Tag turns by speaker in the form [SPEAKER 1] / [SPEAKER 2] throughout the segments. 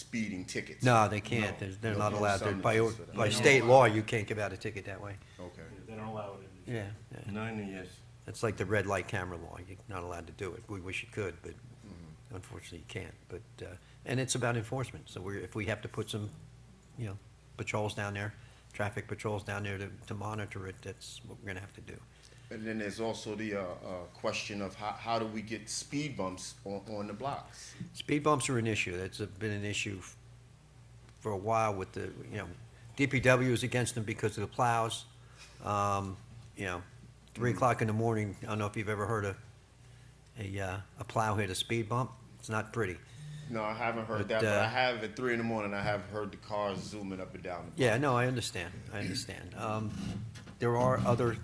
[SPEAKER 1] speeding tickets.
[SPEAKER 2] No, they can't.
[SPEAKER 1] No,
[SPEAKER 2] They're, they're
[SPEAKER 1] no,
[SPEAKER 2] not
[SPEAKER 1] no
[SPEAKER 2] allowed. They're- By,
[SPEAKER 1] substitutes for that.
[SPEAKER 2] by state law, you can't give out a ticket that way.
[SPEAKER 1] Okay.
[SPEAKER 3] They don't allow it in.
[SPEAKER 2] Yeah. yeah.
[SPEAKER 4] Nine years.
[SPEAKER 2] It's like the red light camera law. You're not allowed to do it. We wish you could, but unfortunately you can't. But, uh, and it's about enforcement. So we're, if we have to put some, you know, patrols down there, traffic patrols down there to, to monitor it, that's what we're gonna have to do.
[SPEAKER 1] And then there's also the, uh, uh, question of how, how do we get speed bumps on, on the blocks?
[SPEAKER 2] Speed bumps are an issue. That's a- been an issue f- for a while with the, you know, DPW is against them because of the plows. Um, You know, three o'clock in the morning, I don't know if you've ever heard a, a, uh, a plow hit a speed bump. It's not pretty.
[SPEAKER 1] No, I haven't heard
[SPEAKER 2] But,
[SPEAKER 1] that, but I
[SPEAKER 2] uh,
[SPEAKER 1] have at three in the morning, I have heard the cars zooming up and down. the block.
[SPEAKER 2] Yeah, no, I understand, I understand. Um, There are other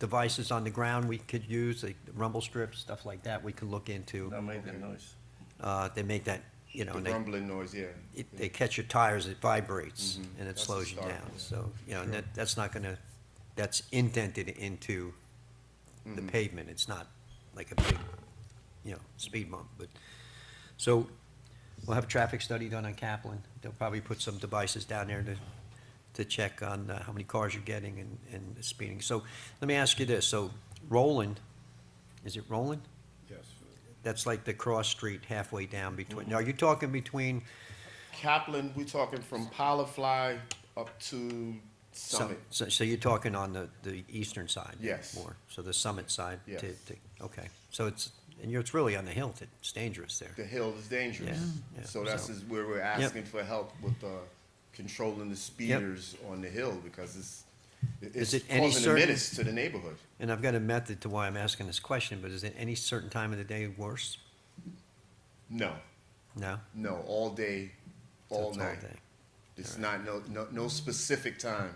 [SPEAKER 2] devices on the ground we could use, like rumble strips, stuff like that, we could look into.
[SPEAKER 4] That made the noise.
[SPEAKER 2] Uh, They make that, you know,
[SPEAKER 1] The
[SPEAKER 2] and they
[SPEAKER 1] rumbling noise, yeah.
[SPEAKER 2] it- they catch your tires, it vibrates, and it
[SPEAKER 1] Mm-hmm. That's a
[SPEAKER 2] slows you
[SPEAKER 1] start,
[SPEAKER 2] down.
[SPEAKER 1] yeah.
[SPEAKER 2] So, you know, and that, that's not gonna, that's indented into
[SPEAKER 1] Mm-hmm.
[SPEAKER 2] the pavement, it's not like a big, you know, speed bump, but, so, we'll have a traffic study done on Kaplan, they'll probably put some devices down there to, to check on uh, how many cars you're getting and, and the speeding. So, let me ask you this, so Roland, is it Roland?
[SPEAKER 1] Yes.
[SPEAKER 2] That's like the cross street halfway down
[SPEAKER 1] Mm-hmm.
[SPEAKER 2] between, now, are you talking between
[SPEAKER 1] Kaplan, we talking from Pilafly up to
[SPEAKER 2] So,
[SPEAKER 1] Summit.
[SPEAKER 2] so so you're talking on the, the eastern side?
[SPEAKER 1] Yes.
[SPEAKER 2] More, so the summit side? to-
[SPEAKER 1] Yes.
[SPEAKER 2] to- Okay, so it's, and you're, it's really on the hill, that it's dangerous there.
[SPEAKER 1] The hill is dangerous.
[SPEAKER 2] Yeah, yeah,
[SPEAKER 1] So that's
[SPEAKER 2] so-
[SPEAKER 1] is where we're asking for help with, uh, controlling the speeders on the hill because it's, it's
[SPEAKER 2] Is it any
[SPEAKER 1] causing a
[SPEAKER 2] certain-
[SPEAKER 1] menace to the neighborhood.
[SPEAKER 2] And I've got a method to why I'm asking this question, but is it any certain time of the day worse?
[SPEAKER 1] No,
[SPEAKER 2] No?
[SPEAKER 1] no, all day,
[SPEAKER 2] So
[SPEAKER 1] all
[SPEAKER 2] it's
[SPEAKER 1] night.
[SPEAKER 2] day.
[SPEAKER 1] It's not, no, no, no specific time,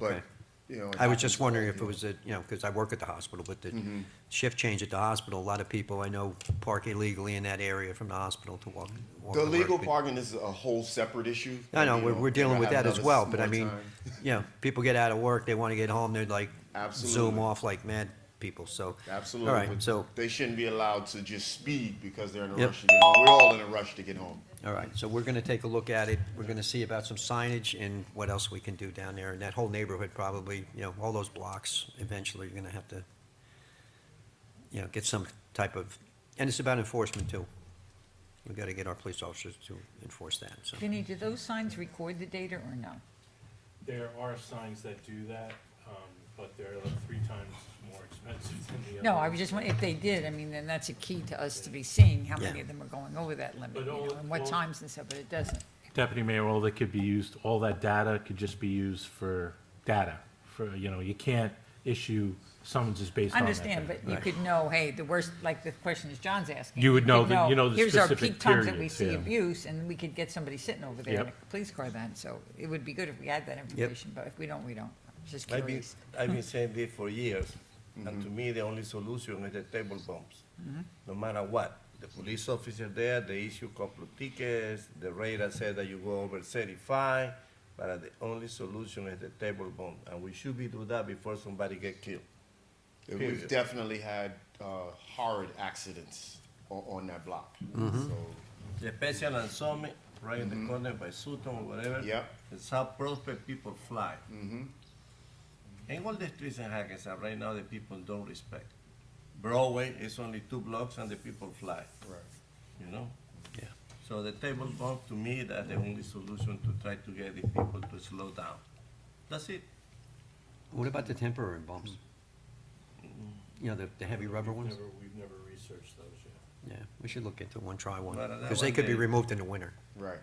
[SPEAKER 1] but,
[SPEAKER 2] Okay.
[SPEAKER 1] you know. it
[SPEAKER 2] I was
[SPEAKER 1] happens
[SPEAKER 2] just wondering
[SPEAKER 1] all
[SPEAKER 2] if it
[SPEAKER 1] day.
[SPEAKER 2] was, a you know, because I work at the hospital, but the
[SPEAKER 1] Mm-hmm.
[SPEAKER 2] shift change at the hospital, a lot of people I know park illegally in that area from the hospital to walk. walk
[SPEAKER 1] The
[SPEAKER 2] to work,
[SPEAKER 1] legal
[SPEAKER 2] but-
[SPEAKER 1] parking is a whole separate issue.
[SPEAKER 2] I know,
[SPEAKER 1] You
[SPEAKER 2] we're, we're dealing
[SPEAKER 1] I
[SPEAKER 2] with
[SPEAKER 1] have
[SPEAKER 2] that as
[SPEAKER 1] another
[SPEAKER 2] well,
[SPEAKER 1] s-
[SPEAKER 2] but I
[SPEAKER 1] more
[SPEAKER 2] mean,
[SPEAKER 1] time.
[SPEAKER 2] you know, people get out of work, they wanna get home, they're like zoom
[SPEAKER 1] Absolutely.
[SPEAKER 2] off like mad people, so.
[SPEAKER 1] Absolutely.
[SPEAKER 2] All right,
[SPEAKER 1] but
[SPEAKER 2] so,
[SPEAKER 1] They shouldn't be allowed to just speed because they're in a
[SPEAKER 2] Yep.
[SPEAKER 1] rush to get home. We're all in a rush to get home.
[SPEAKER 2] all right, so we're gonna take a look at it, we're gonna see about some signage and what else we can do down there, and that whole neighborhood probably, you know, all those blocks, eventually you're gonna have to, you know, get some type of, and it's about enforcement too. We gotta get our police officers to enforce that, so.
[SPEAKER 5] Vinny, do those signs record the data or no?
[SPEAKER 3] There are signs that do that, um, but they're like three times more expensive than the other.
[SPEAKER 5] No, I was just wondering, if they did, I mean, then that's a key to us to be seeing how many
[SPEAKER 2] Yeah.
[SPEAKER 5] of them are going over that limit,
[SPEAKER 3] But
[SPEAKER 5] you know,
[SPEAKER 3] all-
[SPEAKER 5] and what
[SPEAKER 3] all-
[SPEAKER 5] times and stuff, but it doesn't.
[SPEAKER 3] Deputy Mayor, all that could be used, all that data could just be used for data, for, you know, you can't issue summonses based
[SPEAKER 5] I
[SPEAKER 3] on that.
[SPEAKER 5] understand,
[SPEAKER 3] data.
[SPEAKER 5] but you could know, hey, the worst, like the question is John's asking.
[SPEAKER 3] You would know
[SPEAKER 5] could
[SPEAKER 3] that- you know the specific
[SPEAKER 5] Here's our peak times that we
[SPEAKER 3] periods,
[SPEAKER 5] see
[SPEAKER 3] yeah.
[SPEAKER 5] abuse, and we could get somebody sitting over there in a
[SPEAKER 3] Yep.
[SPEAKER 5] police car then, so it would be good if we had that information, but if we don't, we don't. Just
[SPEAKER 4] I've been,
[SPEAKER 5] curious.
[SPEAKER 4] I've been saying this for years, and to me, the only solution is the table bumps.
[SPEAKER 5] Mm-hmm.
[SPEAKER 4] No matter what, the police officer there, they issue couple of tickets, the radar said that you go over thirty-five, but uh, the only solution is the table bump, and we should be do that before somebody get killed.
[SPEAKER 1] We've
[SPEAKER 4] Period.
[SPEAKER 1] definitely had uh, horrid accidents on, on that block.
[SPEAKER 2] Mm-hmm.
[SPEAKER 1] So,
[SPEAKER 4] Especially on Summit, right in the corner by Sutton or whatever.
[SPEAKER 1] Yep.
[SPEAKER 4] It's how Prospect people fly. And all the streets in Hackensack right now, the people don't respect. Broadway is only two blocks and the people fly,
[SPEAKER 1] right.
[SPEAKER 4] you know?
[SPEAKER 2] Yeah.
[SPEAKER 4] So the table bump, to me, that's the only solution to try to get the people to slow down. That's it.
[SPEAKER 2] What about the temporary bumps? You know, the, the heavy rubber ones?
[SPEAKER 3] Never, we've never researched those yet.
[SPEAKER 2] Yeah, we should look into one, try one,
[SPEAKER 4] Right, that
[SPEAKER 2] because they
[SPEAKER 4] one
[SPEAKER 2] could be
[SPEAKER 4] they-
[SPEAKER 2] removed in the winter.
[SPEAKER 1] Right.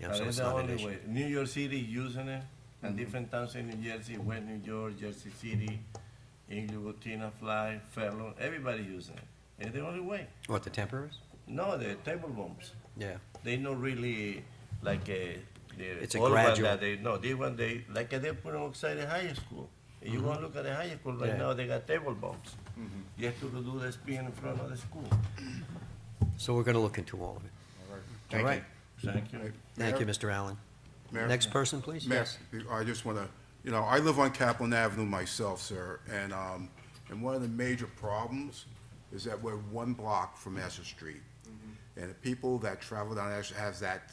[SPEAKER 2] Yeah,
[SPEAKER 4] That
[SPEAKER 2] so
[SPEAKER 4] is
[SPEAKER 2] it's
[SPEAKER 4] the
[SPEAKER 2] not an
[SPEAKER 4] only
[SPEAKER 2] issue. Mm-hmm.
[SPEAKER 4] way. New York City using it, and different towns in New Jersey, West New York, Jersey City, Inglewood, Tina Fly, Fairlawn, everybody using it. It's the only way.
[SPEAKER 2] What, the temporaries?
[SPEAKER 4] No, the table bumps.
[SPEAKER 2] Yeah,
[SPEAKER 4] They not really like a. The
[SPEAKER 2] It's a
[SPEAKER 4] old
[SPEAKER 2] gradual-
[SPEAKER 4] One that they, no, this one they like eh, they put outside the high school. If You want to look at the high school right
[SPEAKER 2] Mm-hmm. Yeah. Mm-hmm.
[SPEAKER 4] now? They got table bumps. You have to do the spin in front of the school.
[SPEAKER 2] so we're gonna look into all of it.
[SPEAKER 1] All right.
[SPEAKER 2] All
[SPEAKER 1] Thank
[SPEAKER 2] right,
[SPEAKER 1] you.
[SPEAKER 4] Thank you.
[SPEAKER 2] thank you,
[SPEAKER 6] Mayor?
[SPEAKER 2] Mr. Allen.
[SPEAKER 6] Mayor?
[SPEAKER 2] Next person, please?
[SPEAKER 6] Mayor, I just want to, you know, I live on Kaplan Avenue myself, sir, and, um, and one of the major problems is that we're one block from Master Street. And the people that travel down there has that